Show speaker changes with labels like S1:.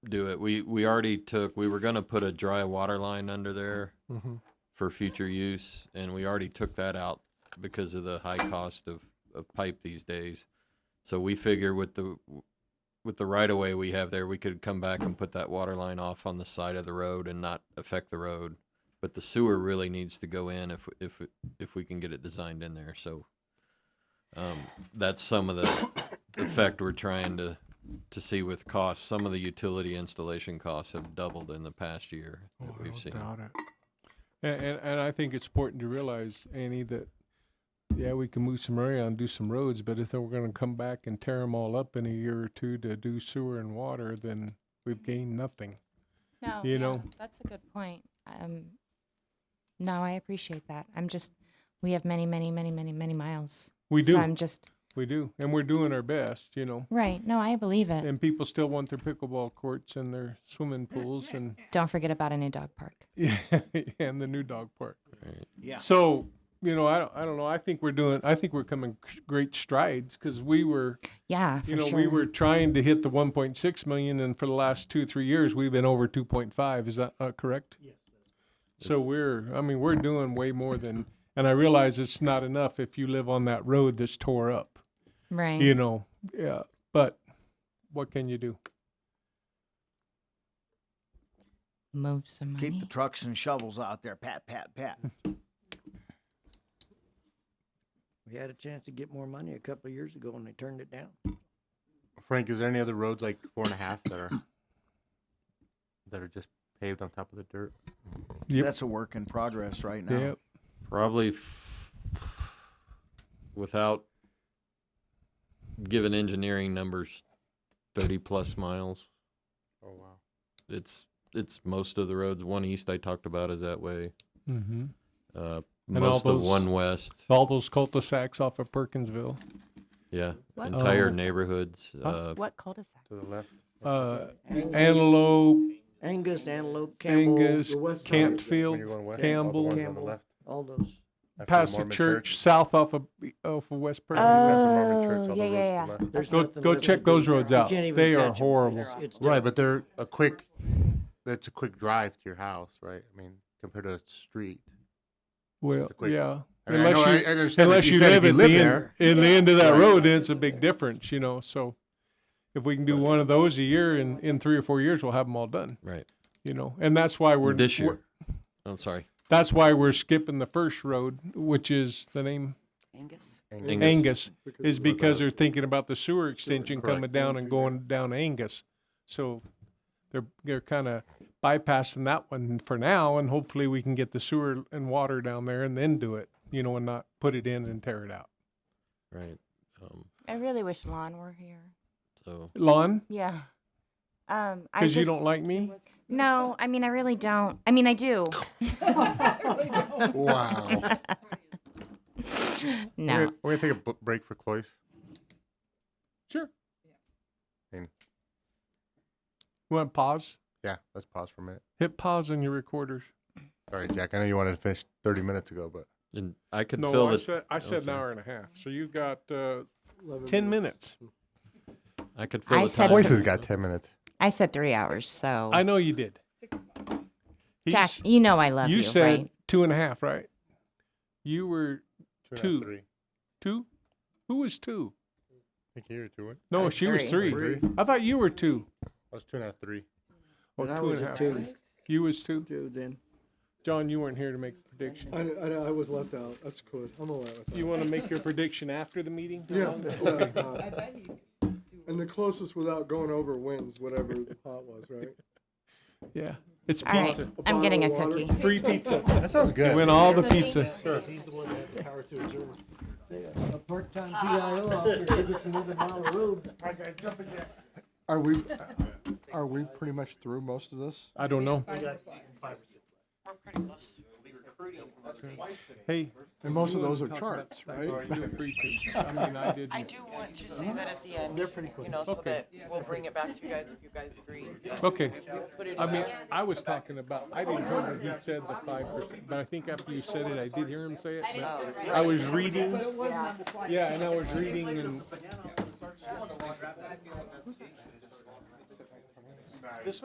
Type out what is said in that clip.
S1: do it. We we already took. We were gonna put a dry water line under there
S2: Mm-hmm.
S3: Mhm.
S1: for future use, and we already took that out because of the high cost of of pipe these days. So we figure with the with the right of way we have there, we could come back and put that water line off on the side of the road and not affect the road. But the sewer really needs to go in if if if we can get it designed in there. So um, that's some of the effect we're trying to to see with costs. Some of the utility installation costs have doubled in the past year
S3: Oh,
S1: that
S3: I
S1: we've
S3: don't
S1: seen.
S3: doubt it.
S2: And, and, and I think it's important to realize, Annie, that yeah, we can move some around, do some roads, but if they we're going to come back and tear them all up in a year or two to do sewer and water, then we've gained nothing.
S4: No,
S2: You
S4: yeah,
S2: know?
S4: that's a good point. Um, no, I appreciate that. I'm just, we have many, many, many, many, many miles.
S2: We do,
S4: So I'm just
S2: we do, and we're doing our best, you know.
S4: right. No, I believe it.
S2: And people still want their pickleball courts and their swimming pools and
S4: Don't forget about a new dog park.
S2: yeah, and the new dog park.
S5: Yeah.
S2: So you know, I don't, I don't know. I think we're doing. I think we're coming great strides because we were
S4: Yeah, for
S2: you know,
S4: sure.
S2: we were trying to hit the 1.6 million, and for the last two, three years, we've been over 2.5. Is that uh, correct? Yes. So
S1: It's-
S2: we're, I mean, we're doing way more than, and I realize it's not enough if you live on that road that's tore up,
S4: right.
S2: you know, yeah, but what can you do?
S4: Move some money.
S5: Keep the trucks and shovels out there, pat, pat, pat. We had a chance to get more money a couple of years ago and they turned it down.
S6: Frank, is there any other roads like four and a half that are that are just paved on top of the dirt?
S2: Yep.
S5: That's a work in progress right now.
S2: Yep.
S1: Probably f- without giving engineering numbers, thirty plus miles.
S6: Oh wow.
S1: It's it's most of the roads. One east I talked about is that way.
S2: Mm-hmm.
S1: Uh,
S2: all
S1: most of
S2: those- Oh.
S1: one west.
S2: All those cul-de-sacs off of Perkinsville.
S1: Yeah,
S4: What
S1: entire
S2: else?
S1: neighborhoods. Uh,
S4: what cul-de-sac?
S6: To the left.
S2: Uh,
S5: Angus-
S2: Antelope,
S5: Angus, Antelope, Campbell,
S2: Angus,
S5: the west side,
S6: When you're
S2: Cantfield,
S6: going west, all the
S2: Campbell,
S6: ones on the
S5: Campbell.
S6: left.
S5: all those.
S6: after the
S2: past the
S6: Mormon
S2: church, south off of, off of West Perkinsville.
S5: Uh,
S6: Past the Mormon church, all
S4: Oh, yeah,
S6: the
S4: yeah,
S6: roads to the left.
S5: There's
S2: Go-
S5: nothing
S2: go
S5: left to
S2: check
S5: do
S2: those
S5: there.
S2: roads
S5: You
S2: out.
S5: can't even
S2: They are
S5: catch 'em.
S2: horrible.
S5: It's- it's
S6: Right,
S5: dirt.
S6: but they're a quick. That's a quick drive to your house, right? I mean, compared to a street.
S2: Well,
S6: a quick-
S2: yeah.
S6: I mean, I
S2: Unless
S6: know-
S2: you-
S6: I understand that
S2: Unless you
S6: said if
S2: live at the end,
S6: there,
S2: in the end of that
S6: Right.
S2: road, then it's a big difference, you know, so. If we can do one of those a year in, in three or four years, we'll have them all done,
S1: right.
S2: you know, and that's why we're.
S1: This
S2: we're-
S1: year. I'm sorry.
S2: That's why we're skipping the first road, which is the name
S6: and
S1: Angus.
S2: Angus, is
S6: of
S2: because uh,
S6: the-
S2: they're thinking about the sewer extension
S6: correct.
S2: coming down and going down Angus. So they're, they're kind of bypassing that one for now and hopefully we can get the sewer and water down there and then do it, you know, and not put it in and tear it out.
S1: Right. Um,
S4: I really wish Lon were here.
S1: so
S2: Lon,
S4: Yeah. Um, I
S2: because you
S4: just,
S2: don't like me?
S4: No, I mean, I really don't. I mean, I do.
S6: Wow. We're
S4: No.
S6: gonna- We're gonna take a bu- break for Cloyce.
S2: Sure.
S6: And-
S2: You want to pause?
S6: Yeah, let's pause for a minute.
S2: Hit pause on your recorders.
S6: Sorry, Jack. I know you wanted to finish 30 minutes ago, but
S1: and I could
S2: No,
S1: fill
S2: I
S1: the
S2: said, I said an
S1: sorry.
S2: hour and a half. So you've got uh, 10 minutes.
S1: I could fill
S4: I
S1: the
S4: said-
S1: time.
S6: Cloyce has got 10 minutes.
S4: I said three hours, so.
S2: I know you did.
S4: Jack,
S2: He's-
S4: you know I love you,
S2: you said
S4: right?
S2: two and a half, right? You were
S6: Two. and a half,
S2: Two.
S6: Three. I
S2: two. Who was two?
S6: think you were two. weren't-
S2: No,
S4: was
S2: she was
S4: three.
S2: three. I thought you were two.
S6: I was two and a half, three.
S2: Oh,
S5: And I
S2: two
S5: was
S2: and a
S5: a
S2: half.
S5: two.
S2: You was two.
S5: Two then.
S2: John, you weren't here to make a prediction.
S7: I, I, I was left out. That's good. I'm all right with that.
S2: You want to make your prediction after the meeting?
S7: yeah. yeah, uh, and the closest without going over wins whatever the pot was, right?
S2: Yeah. It's
S4: All right,
S2: pizza.
S4: I'm getting a
S7: Bottle of
S4: cookie.
S2: Free pizza.
S6: That sounds good.
S2: Win all the pizza.
S5: A part-time PIO officer give us another mile of road.
S7: Are we are we pretty much through most of this?
S2: I don't know. Hey.
S7: And most of those are charts, right?
S2: I mean, I did.
S8: I do want to say that at the end, you know, so that we'll bring it back to you guys if you guys agree.
S2: Okay.
S8: Put it
S2: I
S8: in
S2: mean,
S8: there.
S2: I was talking about, I didn't hear what you said, the five percent, but I think after you said it, I did hear him say it. but I was reading, yeah, and I was reading and.